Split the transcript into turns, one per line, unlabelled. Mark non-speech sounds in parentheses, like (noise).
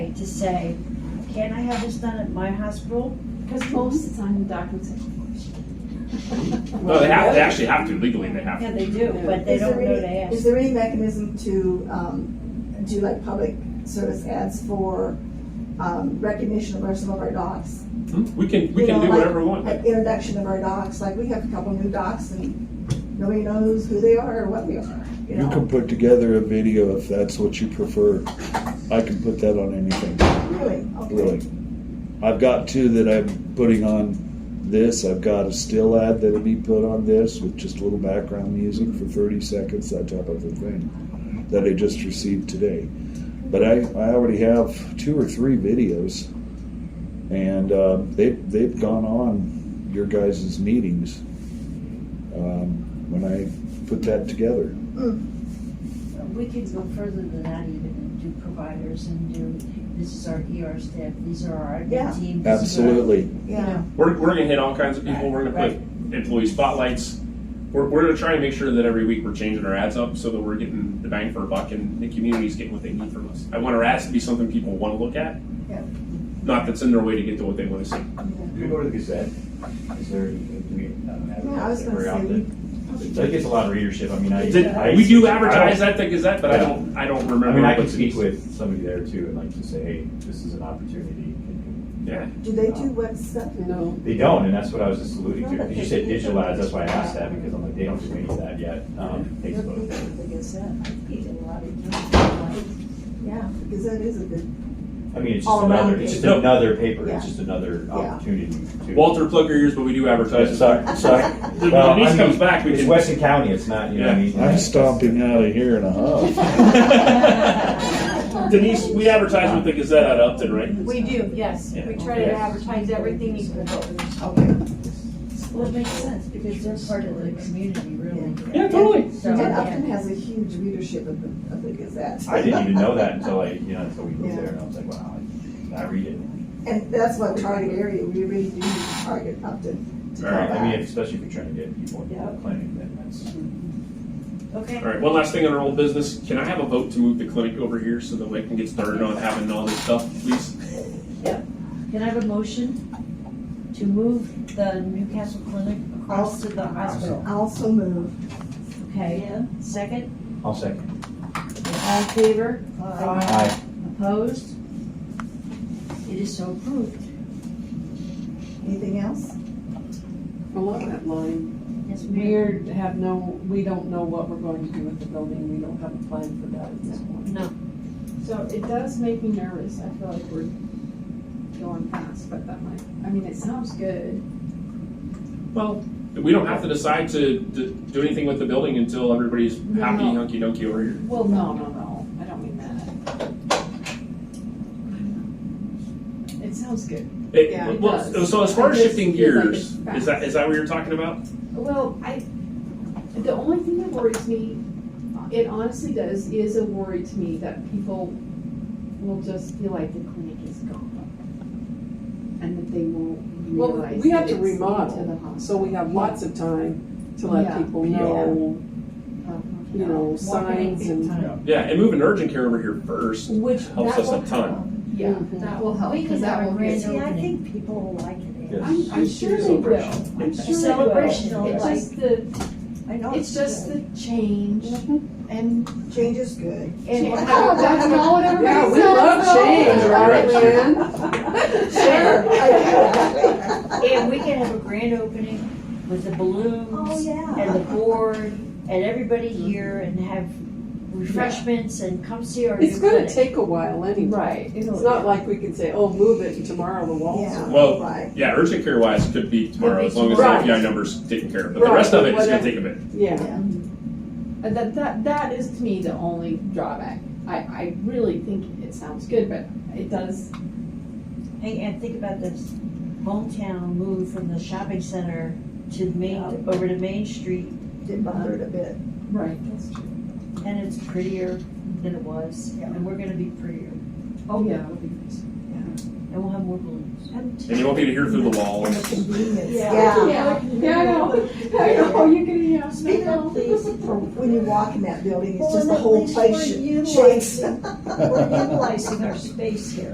to say, can I have this done at my hospital?
Because most of the time the doctors
No, they have, they actually have to legally, they have
Yeah,
to.
they do, but they
Is there
don't know
any-
to
Is
ask.
there any mechanism to, um, do like public service ads for, um, recognition of our- some of our docs?
Hmm? We can, we can
You know,
do
like-
whatever we want.
Like introduction of our docs, like we have a couple new docs and nobody knows who they are or what they are, you
You can
know?
put together a video if that's what you prefer. I can put that on anything,
Really, okay.
really. I've got two that I'm putting on this. I've got a still ad that'll be put on this with just a little background music for 30 seconds, that type of a thing, that I just received today. But I, I already have two or three videos, and uh, they, they've gone on your guys' meetings um, when I put that together.
We could go further than that even and do providers and do, this is our ER staff, these are our
Yeah.
admin team. this is our-"
Absolutely.
Yeah,
We're, we're gonna hit all kinds of people, we're gonna
Right,
put employee spotlights. We're, we're gonna try and make sure that every week we're changing our ads up so that we're getting the bang for a buck and the community's getting what they need from us. I want our ads to be something people wanna look at.
Yeah.
Not that's in their way to get to what they wanna see.
Do we go to the Gazette? Is there, do we um,
yeah, I was
advertise that
gonna
very
say, we,
often? So it gets a lot of readership, I mean, I.
Did-
I-
we do
I don't-
advertise at the Gazette, but I don't, I don't remember.
I mean, I
what
could
it
speak
is.
with somebody there too and like to say, hey, this is an opportunity. Can
Yeah,
do they do web stuff?
you know.
you-" They don't, and that's what I was just alluding to,
No, but
because you
they
said
do.
digital ads, that's why I asked that, because I'm like, they don't do any of that yet, um, Facebook.
Yeah, because that is a good,
I mean, it's just
All
another,
around
it's just
paper.
another paper,
Yeah.
it's just another opportunity to.
Walter, plug your ears, but we do advertise. (laughs)
Sorry, sorry.
When
Well, I
Denise
mean,
comes back, we
It's
can.
Weston County, it's not, you know what I mean?
I'm stomping out of here in a huff.
Denise, we advertise with the Gazette out of Upton, right?
We do, yes.
Yeah.
We try to advertise everything equal.
okay.
Well, it makes sense because they're part of the community, really.
Yeah, totally.
So,
And
yeah.
Upton has a huge readership of the, of the Gazette.
I didn't even know that until I, you know, until we
Yeah.
moved there, and I was like, wow, I- I read it.
And that's what target area, we really do target Upton to come
I mean,
back.
especially if you're trying to get people
Yeah.
into planning, then that's.
Okay.
All right, one last thing on our old business. Can I have a vote to move the clinic over here so that we can get started on having all this stuff, please?
Can I have a motion to move the Newcastle Clinic across to the hospital?
Also move.
Okay, second,
I'll second.
all in favor,
Aye.
opposed? It is so approved.
Anything else?
Along that line,
Yes, Mayor?
we're have no, we don't know what we're going to do with the building. We don't have a plan for that at this point.
No.
So it does make me nervous. I feel like we're going fast, but that might, I mean, it sounds good.
Well, we don't have to decide to, to do anything with the building until everybody's
No,
happy
no.
hunky dunky over here.
Well, no, no, no. I don't mean that. It sounds good.
It-
Yeah, it
well,
does.
So as far as
It just
shifting
feels like
gears,
it's
is that, is that what you're talking about?
Well, I, the only thing that worries me, it honestly does, is a worry to me that people will just feel like the clinic is gone. And that they won't
Well,
realize.
we have
that
to
it's
remodel,
into the hospital.
So we have lots of time to let
Yeah.
people
Yeah.
know, you know, signs and.
Yeah, and moving urgent care over here first
Which,
helps
that
us a
will
ton.
Yeah, that will help,
We
because
could
that
Oh, have a
will
grand
get.
See,
opening.
I think people will like it.
Yes.
I'm, I'm sure they will, I'm sure they will.
celebration,
It's
like-
just the,
I know.
it's just (laughs) the change
Mm-hmm.
and,
Change is good.
and, oh, that's not what everybody
Yeah,
says.
we love change,
Yeah,
right,
right.
Lynn?
(laughs)
Sure. (laughs)
And we can have a grand opening with the
Oh,
balloons and the
yeah.
board and everybody here and have refreshments and come see our new
It's gonna
clinic.
take a while anyway.
Right.
It's not like we can say, oh, move it and tomorrow the walls
Yeah.
are.
Well,
Right.
Yeah, urgent care wise could be tomorrow,
be
as long as the
tomorrow.
API number's taken care of, but the
Right,
rest of it is gonna
whatever.
take a bit.
Yeah.
Yeah.
And That, that, that is to me the only drawback. I, I really think it sounds good, but it does,
Hey, and think about this, hometown moved from the shopping center to the main, over to Main Street,
Did bother it a bit.
right,
and it's prettier than it was, and we're gonna be prettier,
oh, yeah.
and we'll have more balloons.
And you won't be able to hear through the
And
walls.
the convenience.
Yeah, yeah, I know, (laughs) I know, you're gonna, yeah.
Speaking of things, when you walk in that building, it's
Well,
just
and
the
at
whole
least
place
we're
shakes.
utilizing- We're utilizing our space here.